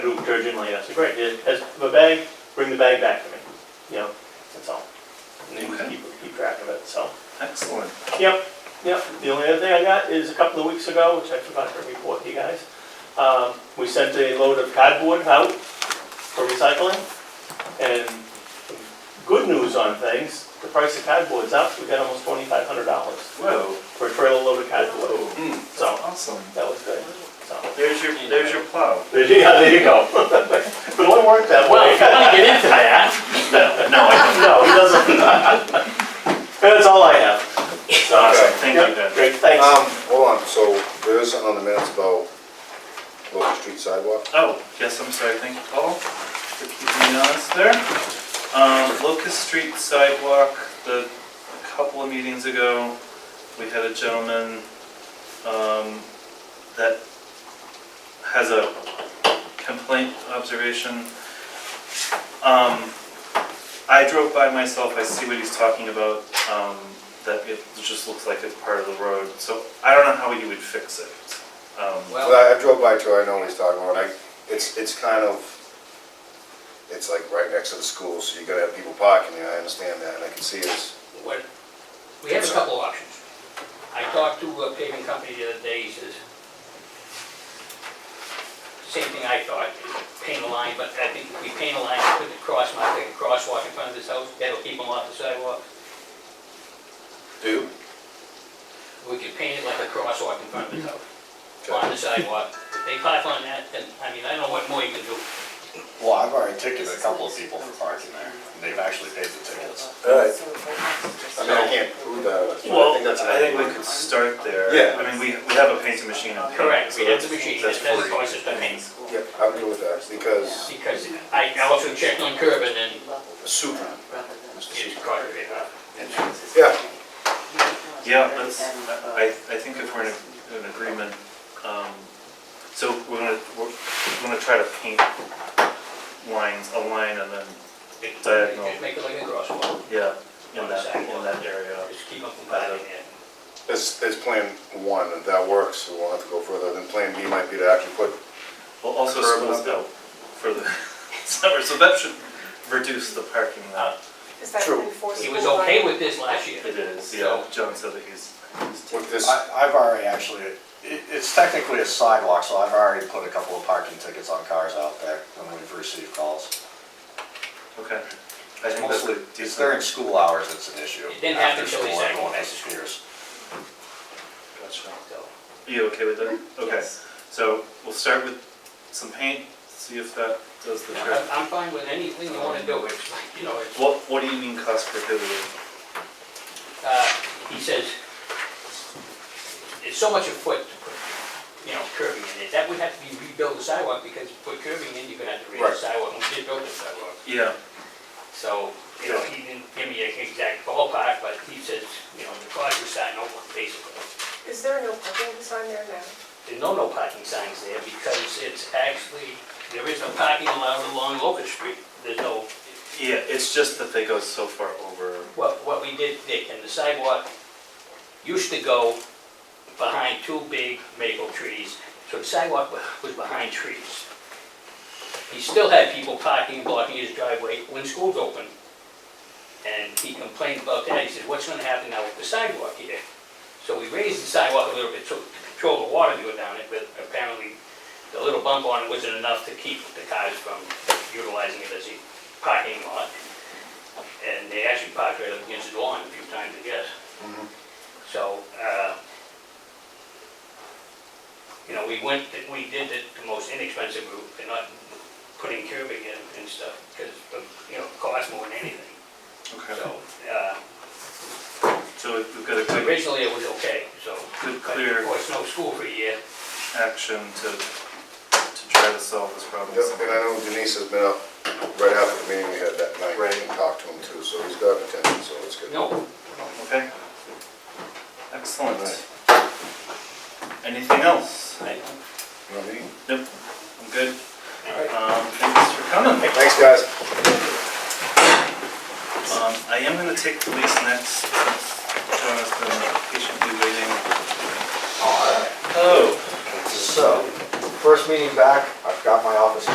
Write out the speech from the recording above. urgently, I said, great, here- has the bag, bring the bag back to me, you know, that's all. And then Okay. keep, keep track of it, so. Excellent. Yep, yep. The only other thing I got is a couple of weeks ago, which I forgot to report to you guys. Um, we sent a load of cardboard out for recycling. And good news on things, the price of cardboard's up. We got almost twenty-five hundred dollars Whoa. for a trailer load of cardboard. That's So, hmm, awesome. that was good, so. There's your, there's your plow. There you, yeah, there you go. But it won't work that Well, way. if you wanna get into that, No, I No, he doesn't. That's all I have. So, Awesome, thank you, yep, Ben. Great, thanks. Um, hold on, so there is something on the minutes about local street sidewalk. Oh, yes, I'm sorry, thank you, Paul, for keeping me honest there. Um, Locust Street sidewalk, the, a couple of meetings ago, we had a gentleman, um, that has a complaint observation. Um, I drove by myself, I see what he's talking about, um, that it just looks like it's part of the road, so I don't know how he would fix it. Um, But I I drove by too, I know what he's talking about, I, it's, it's kind of, it's like right next to the school, so you gotta have people parking there, I understand that, and I can see it's, what, we have a couple options. I talked to a paving company the other day, he says, same thing I thought, paint a line, but I think if we paint a line, put the cross, mark, like a crosswalk in front of this house, that'll keep them off the sidewalk. do, We could paint it like a crosswalk in front of this house, on the sidewalk. If they park on that, then, I mean, I don't know what more you can do. Well, I've already ticketed a couple of people for parking there, and they've actually paid the tickets. alright. I mean, I can't prove that, but I Well, think that's. I think we could start there. Yeah. I mean, we, we have a painting machine on. hand, Correct, so we have that's- the machine, that's that's the free. process I mean. Yep, I'm good with that, because Because I I also checked on curb and then Supra, it's caught it up. yeah, Yeah, that's, I, I think if we're in an agreement, um, so we're gonna, we're gonna try to paint lines, a line and then, It- Diagonal. Just make it like a crosswalk, yeah, in that, in that area. just keep them from biting it. it's, it's plan one, if that works, so we'll have to go further, then plan B might be to actually put, Well, also Curb schools up. out for the summer, so that should reduce the parking lot. Is that True. enforceable? He was okay with this last year. It is, yeah, John said that he's, he's- with this, I, I've already actually, it, it's technically a sidewalk, so I've already put a couple of parking tickets on cars out there when we've received calls. okay. I think that's Mostly, a it's decent, during school hours, it's an issue. It didn't happen After till school, the second everyone one. has excuse. gotcha. So, Are you okay with that? Okay, Yes. so we'll start with some paint, see if that does the no, trick. I'm- I'm fine with anything you want to do, it's like, you know, it's, What, what do you mean cost prohibitive? uh, he says, it's so much a foot to put, you know, curbing in it. That would have to be rebuild the sidewalk because you put curbing in, you're gonna have to raise the Right. sidewalk, and we did build the sidewalk. Yeah, So, you know, he didn't give me an exact ballpark, but he says, you know, the cars were starting over, basically. Is there no parking sign there now? There's no no parking signs there because it's actually, there is no parking allowed along Locust Street. There's no, yeah, it's just that they go so far over. what, what we did, Dick, and the sidewalk used to go behind two big maple trees, so the sidewalk wa- was behind trees. He still had people parking, blocking his driveway when school's open. And he complained about that, he said, what's gonna happen now with the sidewalk here? So we raised the sidewalk a little bit, so to control the water to go down it, but apparently the little bump on it wasn't enough to keep the cars from utilizing it as a parking lot. And they actually parked right up against the lawn a few times, I guess. So, uh, you know, we went, we did the the most inexpensive route, and not putting curbing in and stuff, because, you know, it costs more than anything. So, uh, So we've we've got a quick, originally it was okay, so. good But of clear course, no school for a year. action to, to try to solve this problem. Yep, and I know Denise has been up right after the meeting we had that night, Right. and talked to him too, so he's got attention, so it's good. No, Okay. Excellent. Anything else? I- You know what I mean? Nope, I'm good. Um, thanks for coming. Thanks, guys. Um, I am gonna take police next, John has been patiently waiting. All right. Oh. So, first meeting back, I've got my office